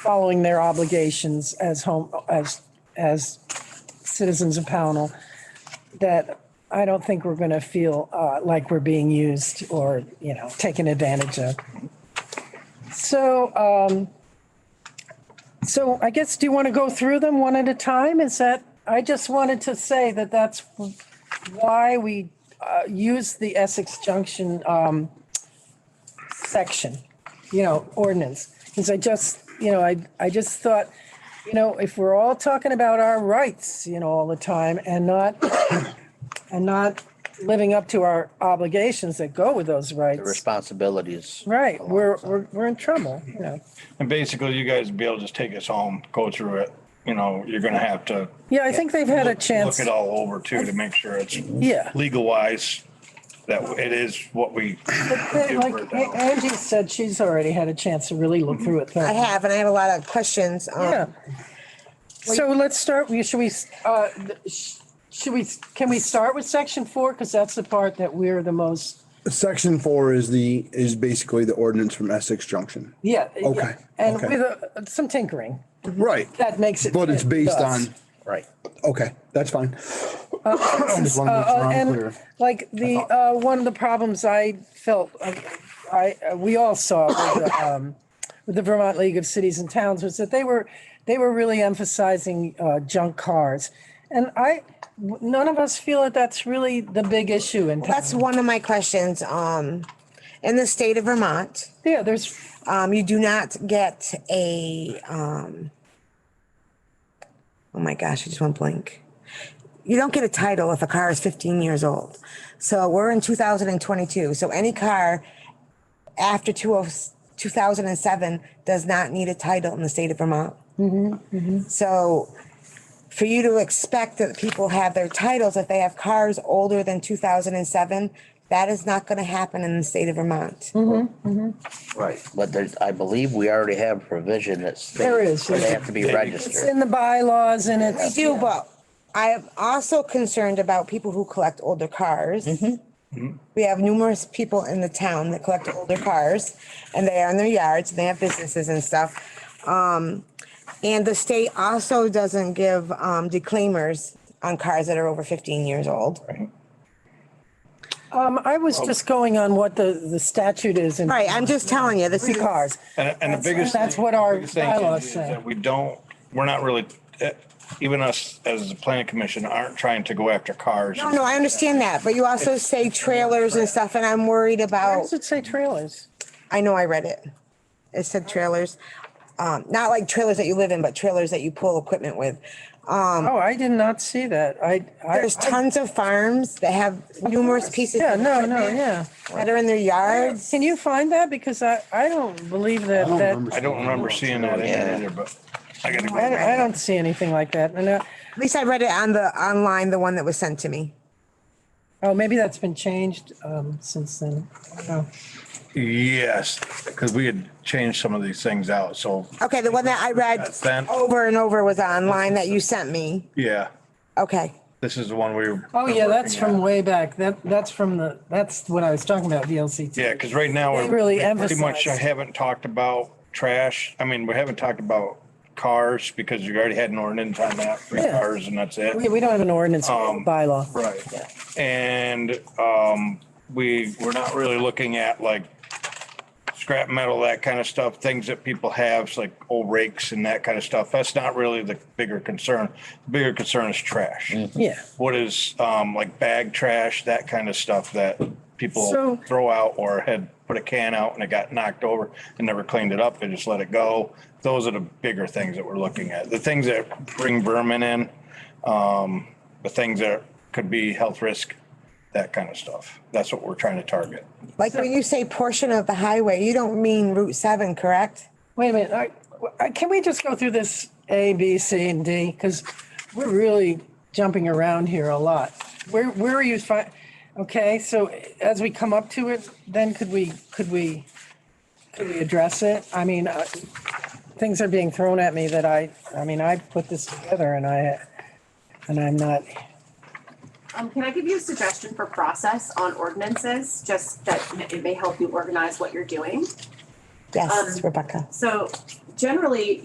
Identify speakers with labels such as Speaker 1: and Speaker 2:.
Speaker 1: following their obligations as home, as, as citizens of Pownell, that I don't think we're going to feel uh, like we're being used or, you know, taken advantage of. So, um, so I guess, do you want to go through them one at a time? Is that, I just wanted to say that that's why we uh, use the Essex Junction um, section, you know, ordinance. Because I just, you know, I, I just thought, you know, if we're all talking about our rights, you know, all the time and not, and not living up to our obligations that go with those
Speaker 2: The
Speaker 1: rights.
Speaker 2: responsibilities.
Speaker 1: Right, we're,
Speaker 2: alongside.
Speaker 1: we're, we're in trouble, you know.
Speaker 3: And basically, you guys be able to just take us home, go through it. You know, you're gonna have to
Speaker 1: Yeah, I think they've had a
Speaker 3: look
Speaker 1: chance,
Speaker 3: it all over too, to make sure it's
Speaker 1: yeah.
Speaker 3: legal wise, that it is what we.
Speaker 1: They- Like A- Angie said, she's already had a chance to really look through it.
Speaker 4: I have, and I have a lot of questions. um,
Speaker 1: Yeah. So let's start, we- should we, uh, sh- should we, can we start with section four? Because that's the part that we're the most,
Speaker 5: Section four is the, is basically the ordinance from Essex Junction.
Speaker 1: yeah. yeah.
Speaker 5: Okay,
Speaker 1: And
Speaker 5: okay.
Speaker 1: with uh, some tinkering,
Speaker 5: Right.
Speaker 1: Mm-hmm. that makes it.
Speaker 5: But it's
Speaker 1: fit
Speaker 5: based
Speaker 1: us.
Speaker 5: on,
Speaker 2: Right.
Speaker 5: okay, that's fine. As long as
Speaker 1: Uh,
Speaker 5: we're on
Speaker 1: And
Speaker 5: clear.
Speaker 1: like the, uh, one of the problems I felt, uh, I, uh, we all saw with the, um, with the Vermont League of Cities and Towns was that they were, they were really emphasizing, uh, junk cars. And I, w- none of us feel that that's really the big issue in town.
Speaker 4: That's one of my questions. Um, in the state of Vermont,
Speaker 1: Yeah, there's,
Speaker 4: um, you do not get a, um, oh my gosh, I just went blank. You don't get a title if a car is fifteen years old. So we're in two thousand and twenty-two, so any car after oh, 2007 does not need a title in the state of Vermont. So for you to expect that people have their titles if they have cars older than two thousand and seven, that is not gonna happen in the state of Vermont.
Speaker 2: Right. But there's, I believe we already have provision that's.
Speaker 1: There is,
Speaker 2: They
Speaker 1: yeah.
Speaker 2: have to be
Speaker 1: it's
Speaker 2: registered.
Speaker 1: in the bylaws and
Speaker 4: We
Speaker 1: it's,
Speaker 4: do, but I am also concerned about people who collect older cars. We have numerous people in the town that collect older cars and they are in their yards and they have businesses and stuff. Um, and the state also doesn't give, um, declaimers on cars that are over fifteen years old.
Speaker 1: um, I was just going on what the, the statute is in
Speaker 4: Right, I'm just telling you, this
Speaker 1: free
Speaker 4: is.
Speaker 1: cars.
Speaker 3: And, and the biggest.
Speaker 1: that's what our
Speaker 3: biggest thing is-
Speaker 1: bylaws
Speaker 3: is
Speaker 1: say.
Speaker 3: that We don't, we're not really, eh, even us as the planning commission aren't trying to go after cars.
Speaker 4: No, no, I understand that, but you also say trailers and stuff, and I'm worried
Speaker 1: Why
Speaker 4: about,
Speaker 1: does it say trailers?
Speaker 4: I know I read it. It said trailers, um, not like trailers that you live in, but trailers that you pull equipment with.
Speaker 1: Oh, I did not see that. I, I,
Speaker 4: There's tons of farms that have numerous pieces
Speaker 1: yeah,
Speaker 4: that
Speaker 1: no, no, yeah.
Speaker 4: are in their yards.
Speaker 1: Can you find that? Because I, I don't believe that,
Speaker 5: don't
Speaker 1: that,
Speaker 5: remember
Speaker 3: I don't remember seeing that in there
Speaker 2: Yeah.
Speaker 3: either, but I gotta
Speaker 1: I, don't-
Speaker 3: go.
Speaker 1: I don't see anything like that. And, uh,
Speaker 4: At least I read it on the, online, the one that was sent to me.
Speaker 1: oh, maybe that's been changed, um, since then. Oh,
Speaker 3: Yes, because we had changed some of these things out, so,
Speaker 4: Okay, the one that I read
Speaker 3: That's sent.
Speaker 4: over and over was online that you sent me.
Speaker 3: yeah,
Speaker 4: Okay,
Speaker 3: this is the one we. were-
Speaker 1: Oh, yeah, that's
Speaker 3: working
Speaker 1: from
Speaker 3: on.
Speaker 1: way back. That, that's from the, that's what I was talking about, VLCT.
Speaker 3: Yeah, because right now.
Speaker 1: They really
Speaker 3: Pretty much I
Speaker 1: emphasized.
Speaker 3: haven't talked about trash. I mean, we haven't talked about cars because you already had an ordinance on that, three
Speaker 1: Yeah.
Speaker 3: cars and that's
Speaker 1: We,
Speaker 3: it.
Speaker 1: we don't have an ordinance bylaw.
Speaker 3: Um, Right. And, um, we, we're not really looking at like scrap metal, that kind of stuff, things that people have, like old rakes and that kind of stuff. That's not really the bigger concern. The Bigger concern is trash.
Speaker 1: Yeah.
Speaker 3: What is, um, like bag trash, that kind of stuff that
Speaker 1: So-
Speaker 3: people throw out or had put a can out and it got knocked over and never cleaned it up. They just let it go. Those are the bigger things that we're looking at. The things that bring vermin in, um, the things that could be health risk, that kind of stuff. That's what we're trying to target.
Speaker 4: like when you say portion of the highway, you don't mean Route seven, correct?
Speaker 1: Wait a minute, I, I- can we just go through this A, B, C, and D? Because we're really jumping around here a lot. Where, where are you fi, okay, so as we come up to it, then could we, could we, could we address it? I mean, uh, things are being thrown at me that I, I mean, I put this together and I, and I'm not,
Speaker 6: Um, can I give you a suggestion for process on ordinances, just that it
Speaker 1: Um,
Speaker 6: may help you organize what you're doing?
Speaker 4: Yes, Rebecca.
Speaker 6: So generally,